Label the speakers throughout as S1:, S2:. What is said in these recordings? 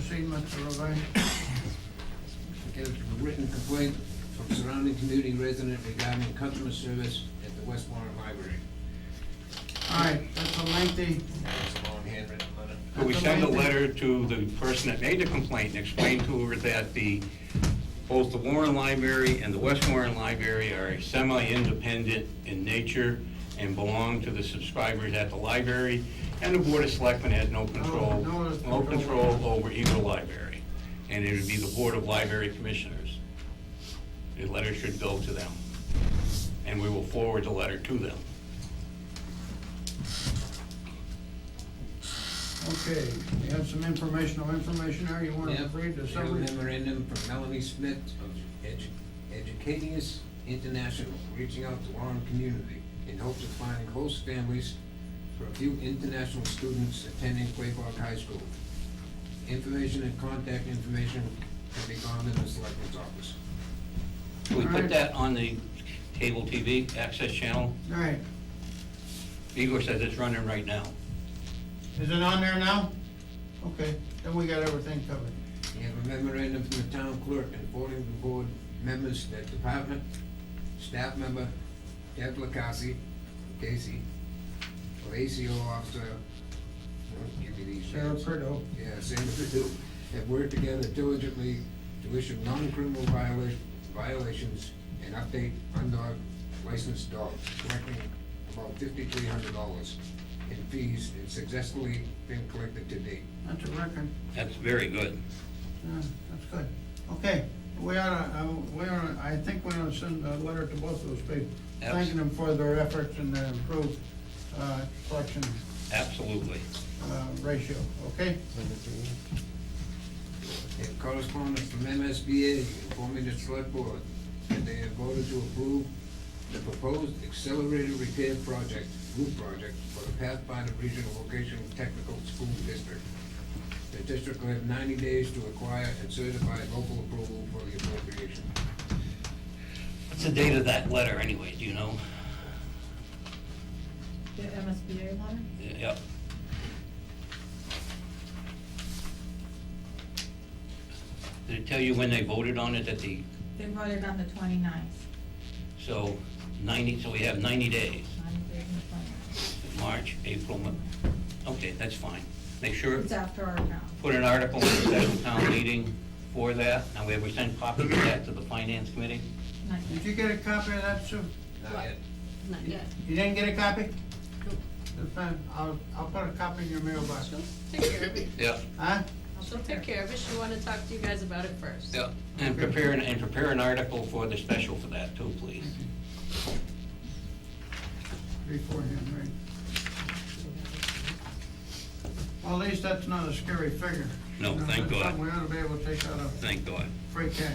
S1: statement, Mr. Irvine?
S2: Get a written complaint from surrounding community resident regarding customer service at the West Warren Library.
S1: All right, that's a lengthy,
S2: It's a long handwritten letter.
S3: Could we send a letter to the person that made the complaint and explain to her that the, both the Warren Library and the West Warren Library are semi-independent in nature and belong to the subscribers at the library, and the Board of Selectmen has no control,
S1: no, there's
S3: no
S1: control.
S3: control over either library. And it would be the Board of Library Commissioners. The letter should go to them, and we will forward the letter to them.
S1: okay, you have some informational information there, you wanna
S2: Yep,
S1: read the
S2: we have a
S1: summary?
S2: memorandum from Melanie Smith of Edu- Educatius International, reaching out to Warren community in hopes of finding host families for a few international students attending Quaybog High School. Information and contact information can be found in the selectmen's office.
S3: Can we
S1: Alright.
S3: put that on the cable TV access channel?
S1: All right,
S3: Igor says it's running right now.
S1: is it on there now? Okay, then we got everything covered.
S2: We have a memorandum from the town clerk informing the board members that department, staff member, Deb Lacasi, Casey, Lacio officer, don't give me these
S1: Sarah
S2: names.
S1: Prideaux.
S2: Yeah, same as do, have worked together diligently to issue non-criminal viola- violations and update undog licensed dogs, collecting about fifty-three hundred dollars in fees and successfully been collected to date.
S1: That's a record,
S3: That's very good.
S1: yeah, that's good. Okay, we oughta, uh, we oughta, I think we oughta send a letter to both of those people,
S3: Yes.
S1: thanking them for their efforts and their improved, uh, collection,
S3: Absolutely.
S1: uh, ratio, okay?
S2: And correspondence from MSBA informing the select board that they have voted to approve the proposed accelerated repair project, group project, for the Pathfinder Regional Vocational Technical School District. The district will have ninety days to acquire and certify local approval for the appropriation.
S3: What's the date of that letter anyway, do you know?
S4: The MSBA letter?
S3: Yep. Did it tell you when they voted on it at the,
S4: They wrote it on the 29th.
S3: so ninety, so we have ninety days,
S4: on the 29th.
S3: March, April, Mo- okay, that's fine. Make sure,
S4: It's after our um, town.
S3: put an article in the special town meeting for that, and we have, we send copies of that to the finance committee?
S4: Not
S1: Did
S4: yet.
S1: you get a copy of that, Sue?
S2: Not yet.
S5: Not yet.
S1: You didn't get a copy? That's fine, I'll, I'll put a copy in your mailbox.
S5: She'll take care of it.
S3: Yep.
S1: Huh?
S5: She'll take care of it. She wanted to talk to you guys about it first.
S3: Yeah, and prepare, an- and prepare an article for the special for that too, please.
S1: Beforehand, right? Well, at least that's not a scary figure.
S3: No,
S1: You know,
S3: thank
S1: that's
S3: God.
S1: something We ought to be able to take out of
S3: Thank God.
S1: free cash.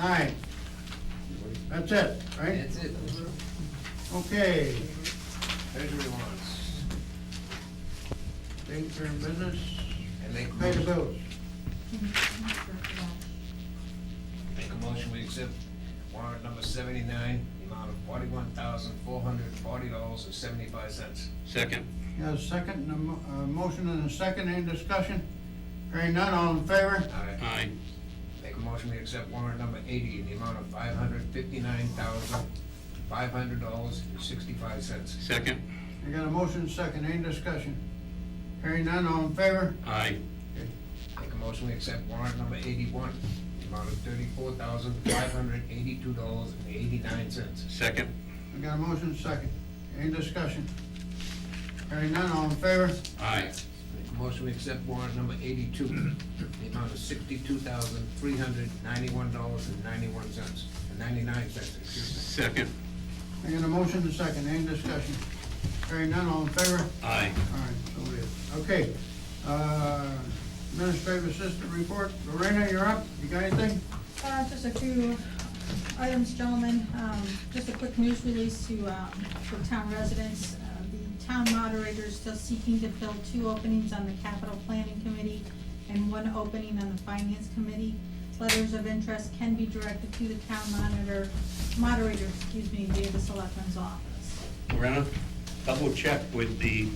S1: All right. That's it, right?
S2: That's it.
S1: Okay,
S2: Treasury wants,
S1: things are in business,
S2: and make
S1: pay the
S2: motion-
S1: bills.
S4: Uh,
S2: Make a motion, we accept warrant number seventy-nine, the amount of forty-one thousand, four hundred and forty dollars and seventy-five cents.
S3: Second.
S1: You have a second, and a mo- a motion and a second, any discussion? Hearing none, all in favor?
S3: Aye.
S2: Make a motion, we accept warrant number eighty in the amount of five hundred fifty-nine thousand, five hundred dollars and sixty-five cents.
S3: Second.
S1: I got a motion and a second, any discussion? Hearing none, all in favor?
S3: Aye.
S2: Make a motion, we accept warrant number eighty-one, in the amount of thirty-four thousand, five hundred eighty-two dollars and eighty-nine cents.
S3: Second.
S1: I got a motion and a second, any discussion? Hearing none, all in favor?
S3: Aye.
S2: Make a motion, we accept warrant number eighty-two, in the amount of sixty-two thousand, three hundred ninety-one dollars and ninety-one cents, ninety-nine cents, excuse me.
S3: Second.
S1: I got a motion and a second, any discussion? Hearing none, all in favor?
S3: Aye.
S1: All right, so it is, okay. Uh, Administrative Assistant Report, Lorena, you're up, you got anything?
S4: Uh, just a few items, gentlemen, um, just a quick news release to, um, for town residents. Uh, The town moderator is still seeking to fill two openings on the capital planning committee and one opening on the finance committee. Letters of interest can be directed to the town monitor, moderator, excuse me, via the selectman's office.
S3: Lorena, double check with the